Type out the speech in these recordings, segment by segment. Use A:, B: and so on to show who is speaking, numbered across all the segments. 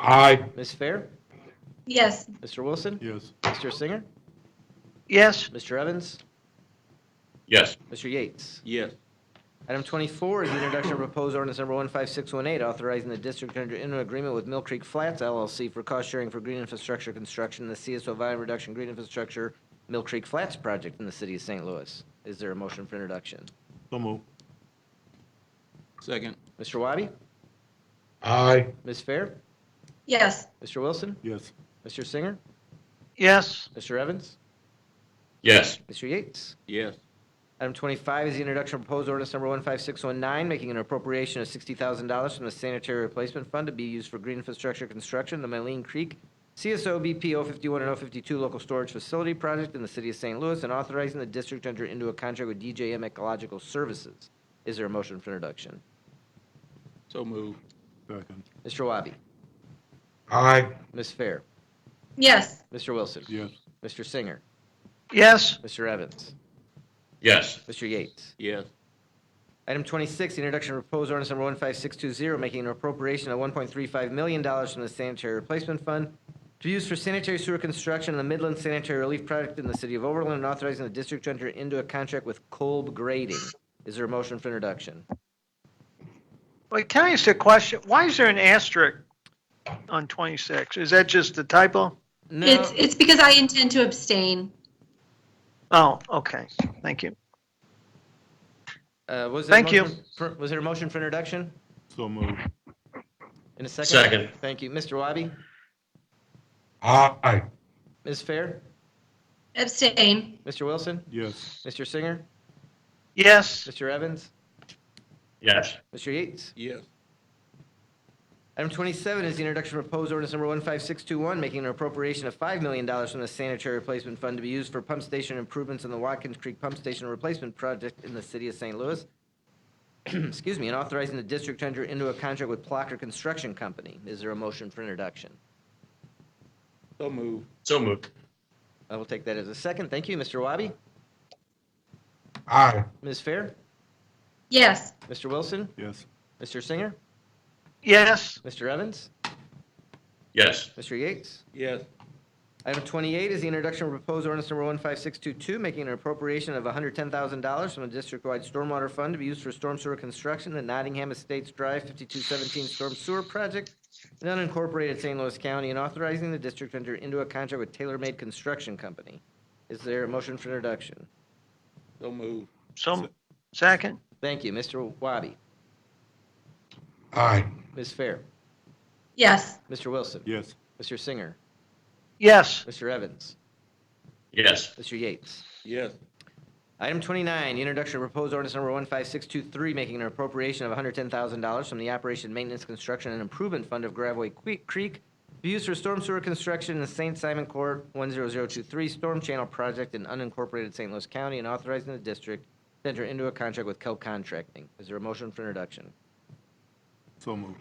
A: Aye.
B: Ms. Fair?
C: Yes.
B: Mr. Wilson?
A: Yes.
B: Mr. Singer?
D: yes,
B: Mr. Evans?
A: Yes.
B: Mr. Yates?
E: yes,
B: Item 24 is the introduction of proposed ordinance number 15618, authorizing the district to enter into an agreement with Mill Creek Flats LLC for cost sharing for green infrastructure construction in the CSO volume reduction green infrastructure Mill Creek Flats project in the city of St. Louis. Is there a motion for introduction?
A: So move.
E: second,
B: Mr. Wabi?
A: Aye.
B: Ms. Fair?
C: Yes.
B: Mr. Wilson?
A: Yes.
B: Mr. Singer?
D: yes,
B: Mr. Evans?
A: Yes.
B: Mr. Yates?
E: yes,
B: Item 25 is the introduction of proposed ordinance number 15619, making an appropriation of $60,000 from the sanitary replacement fund to be used for green infrastructure construction, the Maline Creek CSO BP 051 and 052 local storage facility project in the city of St. Louis, and authorizing the district to enter into a contract with DJM Ecological Services. Is there a motion for introduction?
E: so move,
A: Second.
B: Mr. Wabi?
A: Aye.
B: Ms. Fair?
C: Yes.
B: Mr. Wilson?
A: Yes.
B: Mr. Singer?
D: yes,
B: Mr. Evans?
A: Yes.
B: Mr. Yates?
E: yes,
B: Item 26, the introduction of proposed ordinance number 15620, making an appropriation of $1.35 million from the sanitary replacement fund to be used for sanitary sewer construction in the Midland Sanitary Relief Project in the city of Overland, and authorizing the district to enter into a contract with Kolb Grading. Is there a motion for introduction?
D: wait, can I ask a question? Why is there an asterisk on 26? Is that just a typo?
B: No,
C: It's, it's because I intend to abstain.
D: Oh, okay, thank you.
B: uh, was there a
D: Thank you.
B: motion for- Was there a motion for introduction?
A: So move.
B: In a second?
F: Second.
B: Thank you. Mr. Wabi?
A: Aye.
B: Ms. Fair?
C: Abstain.
B: Mr. Wilson?
A: Yes.
B: Mr. Singer?
D: Yes,
B: Mr. Evans?
F: yes,
B: Mr. Yates?
E: yes,
B: Item 27 is the introduction of proposed ordinance number 15621, making an appropriation of $5 million from the sanitary replacement fund to be used for pump station improvements in the Watkins Creek Pump Station Replacement Project in the city of St. Louis. Excuse me, and authorizing the district to enter into a contract with Plocker Construction Company. Is there a motion for introduction?
E: so move,
F: so moved,
B: I will take that as a second. Thank you, Mr. Wabi.
A: Aye.
B: Ms. Fair?
C: Yes.
B: Mr. Wilson?
A: Yes.
B: Mr. Singer?
D: yes,
B: Mr. Evans?
F: yes,
B: Mr. Yates?
E: yes,
B: Item 28 is the introduction of proposed ordinance number 15622, making an appropriation of $110,000 from the district-wide stormwater fund to be used for storm sewer construction at Nottingham Estates Drive 5217 Storm Sewer Project in unincorporated St. Louis County, and authorizing the district to enter into a contract with Taylor Made Construction Company. Is there a motion for introduction?
E: so move,
D: so, second,
B: Thank you. Mr. Wabi,
A: Aye.
B: Ms. Fair,
C: Yes.
B: Mr. Wilson,
A: Yes.
B: Mr. Singer,
D: yes,
B: Mr. Evans,
F: yes,
B: Mr. Yates.
E: yes,
B: Item 29, the introduction of proposed ordinance number 15623, making an appropriation of $110,000 from the Operation Maintenance Construction and Improvement Fund of Graveway Que- Creek to be used for storm sewer construction in the St. Simon Court 10023 Storm Channel Project in unincorporated St. Louis County, and authorizing the district to enter into a contract with Kell Contracting. Is there a motion for introduction?
A: So move.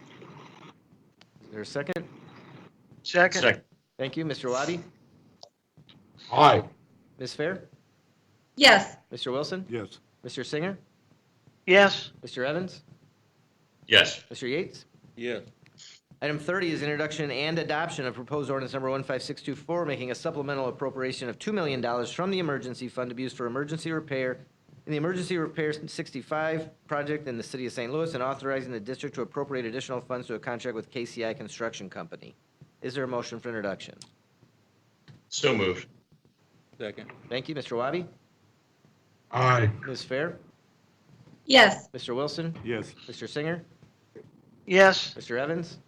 B: Is there a second?
D: second,
F: second,
B: Thank you, Mr. Wabi.
A: Aye.
B: Ms. Fair?
C: Yes.
B: Mr. Wilson?
A: Yes.
B: Mr. Singer?
D: yes,
B: Mr. Evans?
F: yes,
B: Mr. Yates?
E: yes,
B: Item 30 is introduction and adoption of proposed ordinance number 15624, making a supplemental appropriation of $2 million from the emergency fund to be used for emergency repair in the Emergency Repair 65 project in the city of St. Louis, and authorizing the district to appropriate additional funds to a contract with KCI Construction Company. Is there a motion for introduction?
F: so moved,
E: second,
B: Thank you, Mr. Wabi.
A: Aye.
B: Ms. Fair?
C: Yes.
B: Mr. Wilson?
A: Yes.
B: Mr. Singer?
D: yes,
B: Mr. Evans?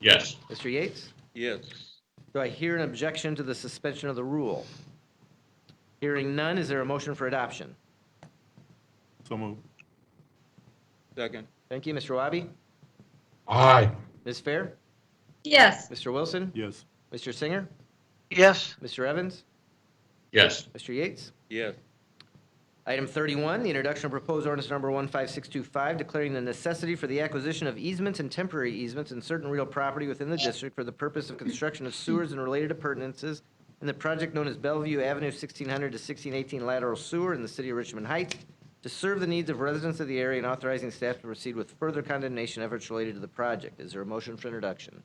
F: yes,
B: Mr. Yates?
E: yes,
B: Do I hear an objection to the suspension of the rule? Hearing none, is there a motion for adoption?
A: So move.
E: second,
B: Thank you, Mr. Wabi.
A: Aye.
B: Ms. Fair?
C: Yes.
B: Mr. Wilson?
A: Yes.
B: Mr. Singer?
D: yes,
B: Mr. Evans?
F: yes,
B: Mr. Yates?
E: yes,
B: Item 31, the introduction of proposed ordinance number 15625, declaring the necessity for the acquisition of easements and temporary easements in certain real property within the district for the purpose of construction of sewers and related appurtenances in the project known as Bellevue Avenue 1600 to 1618 lateral sewer in the city of Richmond Heights to serve the needs of residents of the area and authorizing staff to proceed with further condemnation efforts related to the project. Is there a motion for introduction?